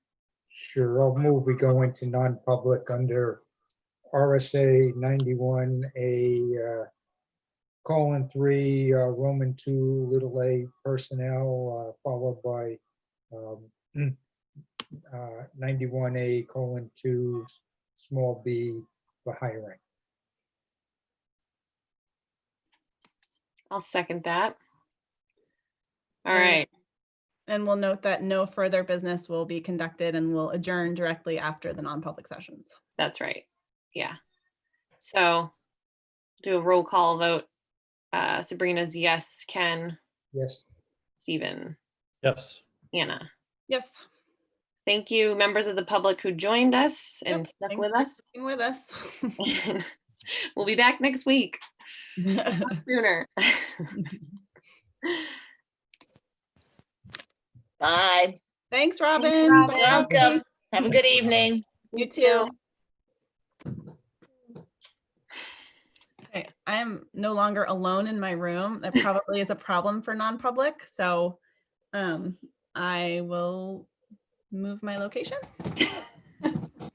Sure, I'll move, we go into non-public under RSA ninety-one, a uh, colon three, uh, Roman two, little a personnel, uh, followed by um, uh, ninety-one, a colon two, s- small b, for hiring. I'll second that. All Alright. right, And we'll note that no further business will be conducted and will adjourn directly after the non-public sessions. that's right. Yeah. So do a roll call vote. Uh, Sabrina's yes, Ken, Yes, Stephen, Yes. Anna. Yes, Thank you, members of the public who joined us and stuck thank with us. stay with us. We'll be back next week sooner. Bye. Thanks, Robin. Robin. Bye. Welcome. Have a good evening. You too. Okay, I am no longer alone in my room. That probably is a problem for non-public, so um, I will move my location.